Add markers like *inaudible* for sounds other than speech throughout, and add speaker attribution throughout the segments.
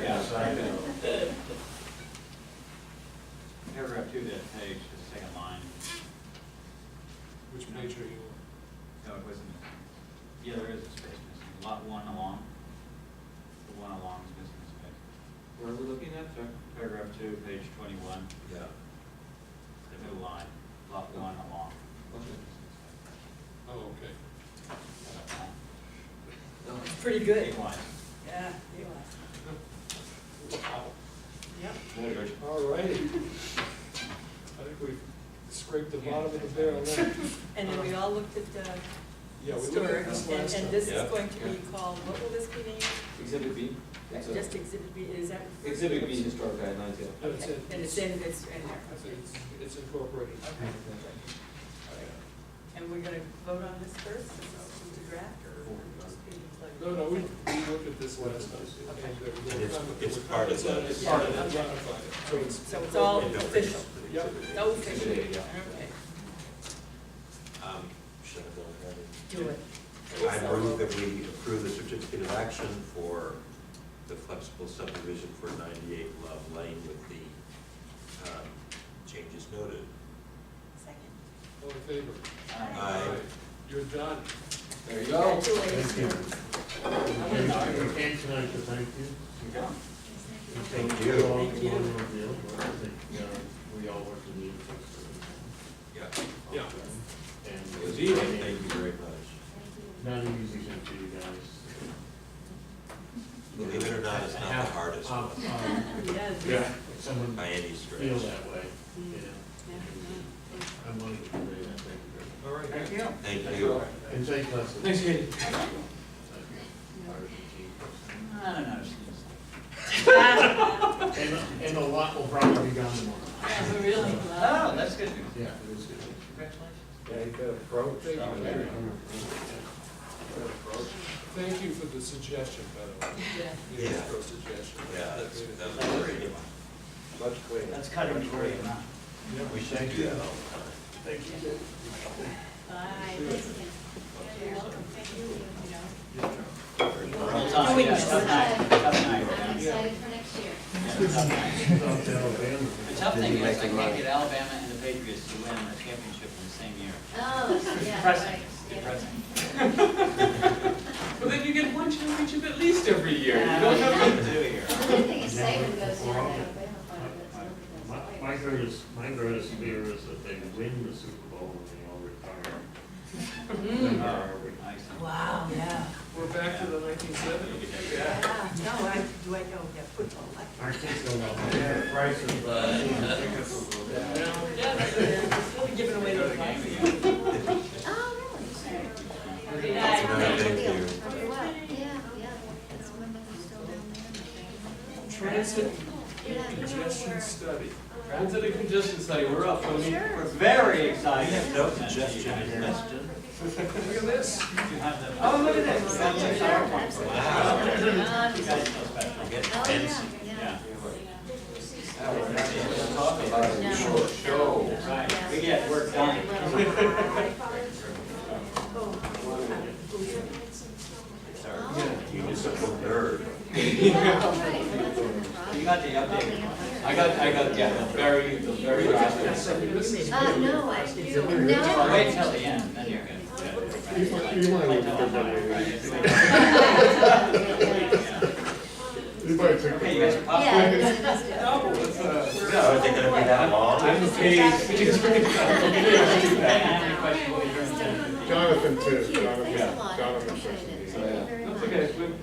Speaker 1: side.
Speaker 2: Paragraph two, of that page, the second line,
Speaker 3: Which page are you on?
Speaker 2: no, it wasn't missing. Yeah, there is a space missing, lot one along, the one along is missing a space.
Speaker 1: Where are we looking at, sir?
Speaker 2: Paragraph two, page twenty-one,
Speaker 1: Yeah.
Speaker 2: the middle line, lot one along.
Speaker 3: Oh, okay.
Speaker 1: Okay.
Speaker 4: Pretty good.
Speaker 2: Big line.
Speaker 4: Yeah, you are. Yep.
Speaker 3: All righty. I think we've scraped the bottom of the barrel there.
Speaker 4: *laughs* And then we all looked at the
Speaker 3: Yeah, we looked
Speaker 4: historic,
Speaker 3: at this
Speaker 4: and,
Speaker 3: last time.
Speaker 4: and this
Speaker 1: Yeah.
Speaker 4: is going to be
Speaker 1: Yeah.
Speaker 4: called, what will this be named?
Speaker 1: Exhibit B? It's a-
Speaker 4: Just exhibit B, is that?
Speaker 1: Exhibit B, historic guidelines, yeah.
Speaker 3: That's
Speaker 4: Okay,
Speaker 3: it.
Speaker 4: And it's in, it's in
Speaker 3: I
Speaker 4: there.
Speaker 3: think It's it's incorporated.
Speaker 4: And we're gonna vote on this first, this is the draft, or we're just being like?
Speaker 3: No, no, we, we looked at this last time.
Speaker 4: Okay.
Speaker 3: And uh,
Speaker 5: it's- it's part of the-
Speaker 3: It's part of
Speaker 4: Yeah,
Speaker 3: it,
Speaker 4: okay.
Speaker 3: ratified. So it's,
Speaker 4: So it's all
Speaker 5: Don't forget
Speaker 4: official,
Speaker 5: the
Speaker 3: Yep.
Speaker 5: exhibit.
Speaker 4: no official,
Speaker 1: Exhibit A, yeah.
Speaker 4: Oh, okay,
Speaker 5: Um, should I go ahead and-
Speaker 4: do it.
Speaker 5: I move that we approve the certificate of action for the flexible subdivision for ninety-eight Love Lane with the, um, changes noted.
Speaker 4: Second.
Speaker 3: all in favor?
Speaker 5: Aye.
Speaker 3: You're done.
Speaker 1: There you go.
Speaker 6: Thank you.
Speaker 4: Congratulations.
Speaker 6: We can't tonight, but thank you.
Speaker 5: Thank you.
Speaker 6: all
Speaker 4: Thank you.
Speaker 6: for the deal, but I think, uh, we all work in the interest of.
Speaker 5: Yeah.
Speaker 3: Yeah.
Speaker 6: And.
Speaker 5: It was easy, thank you very much.
Speaker 6: Not an easy thing for you guys.
Speaker 5: Believe it or not, it's not the hardest
Speaker 6: Uh,
Speaker 5: one
Speaker 6: um,
Speaker 4: Yes.
Speaker 6: Yeah, someone
Speaker 5: by any
Speaker 6: feel
Speaker 5: stretch.
Speaker 6: that way,
Speaker 4: Mm.
Speaker 6: yeah.
Speaker 4: Yeah,
Speaker 6: I'm willing to convey that, thank you very much.
Speaker 3: All right. Thank you.
Speaker 5: Thank you.
Speaker 6: And thank Leslie.
Speaker 1: Thanks, Katie.
Speaker 6: Thank you. Part of the team.
Speaker 2: I don't know, it's just-
Speaker 6: And, and a lot will probably be gone tomorrow.
Speaker 4: Yeah, we're really glad.
Speaker 2: Oh, that's good news.
Speaker 6: Yeah, it is good.
Speaker 2: Congratulations.
Speaker 1: Yeah, you got a pro.
Speaker 3: Thank you for the suggestion, by the way.
Speaker 4: Yeah.
Speaker 3: The
Speaker 5: Yeah.
Speaker 3: intro suggestion.
Speaker 5: Yeah, that's, that was great.
Speaker 1: Much cleaner.
Speaker 2: That's cutting it for you, huh?
Speaker 5: We should do that all the time.
Speaker 6: Thank you.
Speaker 4: Bye.
Speaker 7: You're welcome, thank you.
Speaker 2: Tough night, yeah, tough night, tough night,
Speaker 7: I'm
Speaker 2: yeah.
Speaker 7: excited for next year.
Speaker 2: Yeah, tough night.
Speaker 6: South Alabama.
Speaker 2: The tough thing is, I can't get Alabama and the Patriots to win the championship in the same year.
Speaker 7: Oh, yeah,
Speaker 2: Depressing,
Speaker 7: right. yeah.
Speaker 2: depressing.
Speaker 1: But then you get one championship at least every year. You
Speaker 2: Yeah,
Speaker 1: don't
Speaker 2: we
Speaker 1: have
Speaker 2: have to do it here.
Speaker 7: I think it's Saban goes down to Alabama, but it's
Speaker 6: My,
Speaker 7: not the
Speaker 6: my
Speaker 7: best.
Speaker 6: greatest, my greatest fear is that they win the Super Bowl and they all retire. Then where are we?
Speaker 2: Nice.
Speaker 4: Wow, yeah.
Speaker 3: We're back to the nineteen seventies.
Speaker 4: Yeah, no, I, do I know, yeah, football, I.
Speaker 6: Our kids don't know.
Speaker 4: Just really giving away the advice.
Speaker 7: Oh, really?
Speaker 4: Good
Speaker 7: That's
Speaker 4: night.
Speaker 7: one of the
Speaker 5: Thank
Speaker 7: deal.
Speaker 5: you.
Speaker 7: Okay, well, yeah, yeah, that's when they're still down there.
Speaker 3: Transit
Speaker 7: You're not- you know,
Speaker 3: congestion
Speaker 7: we're-
Speaker 3: study.
Speaker 1: Transit and congestion study, we're up. I mean,
Speaker 2: We're very
Speaker 5: I
Speaker 2: excited.
Speaker 5: have no suggestion, Justin.
Speaker 3: Look at this.
Speaker 2: You have the.
Speaker 1: Oh, look at this.
Speaker 2: That's a PowerPoint.
Speaker 5: Wow.
Speaker 2: You guys feel special.
Speaker 5: I'm getting
Speaker 7: Oh,
Speaker 5: fancy.
Speaker 7: yeah, yeah.
Speaker 2: Yeah,
Speaker 1: that was actually what I'm talking about.
Speaker 7: No.
Speaker 1: Short show.
Speaker 2: right, we get work done.
Speaker 7: *laughs*
Speaker 5: Sorry, you just a little nerd.
Speaker 7: Oh, right, that's in the
Speaker 2: You
Speaker 7: problem.
Speaker 2: got the updated one.
Speaker 1: I got, I got, yeah, the very, the very last. one.
Speaker 7: Uh, no, I,
Speaker 2: Well,
Speaker 7: no.
Speaker 2: Wait till the end, then you're
Speaker 6: You want- *laughs* you want to look at the
Speaker 2: good. *laughs* Okay, you guys are
Speaker 7: Yeah,
Speaker 2: popular.
Speaker 7: it is, it is.
Speaker 5: So is it gonna be that long?
Speaker 1: I'm pleased.
Speaker 2: Any questions while you're in the-
Speaker 6: Jonathan
Speaker 7: Thank you, thanks a lot, I appreciate it,
Speaker 1: So, yeah.
Speaker 7: thank you very much.
Speaker 1: That's okay.
Speaker 7: Yeah,
Speaker 1: We-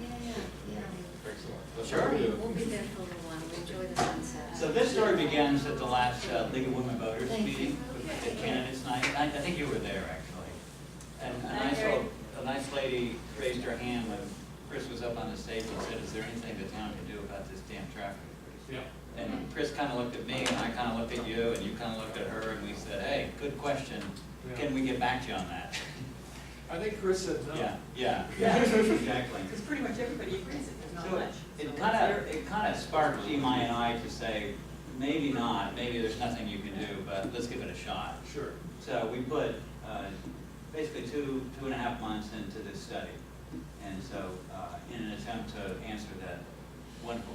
Speaker 7: yeah,
Speaker 1: Sure.
Speaker 7: yeah. We'll be there for a little while, enjoy the sunset.
Speaker 2: So this story begins at the last uh, League of Women Voters meeting, the candidates night, I, I think you were there, actually. And a nice, old- a nice lady raised her hand when Chris was up on the stage and said, is there anything the town can do about this damn traffic?
Speaker 3: Yeah.
Speaker 2: And Chris kind of looked at me, and I kind of looked at you, and you kind of looked at her, and we said, hey, good question, can we get back to you on that? *laughs*
Speaker 3: I think Chris said no.
Speaker 2: Yeah, yeah,
Speaker 4: Yeah.
Speaker 2: *laughs* exactly.
Speaker 4: Because pretty much everybody agrees that there's not
Speaker 2: So
Speaker 4: much. so
Speaker 2: it
Speaker 4: let's
Speaker 2: kind
Speaker 4: hear
Speaker 2: of, it kind of sparked Imai and I to say, maybe not, maybe there's nothing you can do, but let's give it a shot.
Speaker 3: Sure.
Speaker 2: So we put uh, basically two, two and a half months into this study. And so uh, in an attempt to answer that wonderful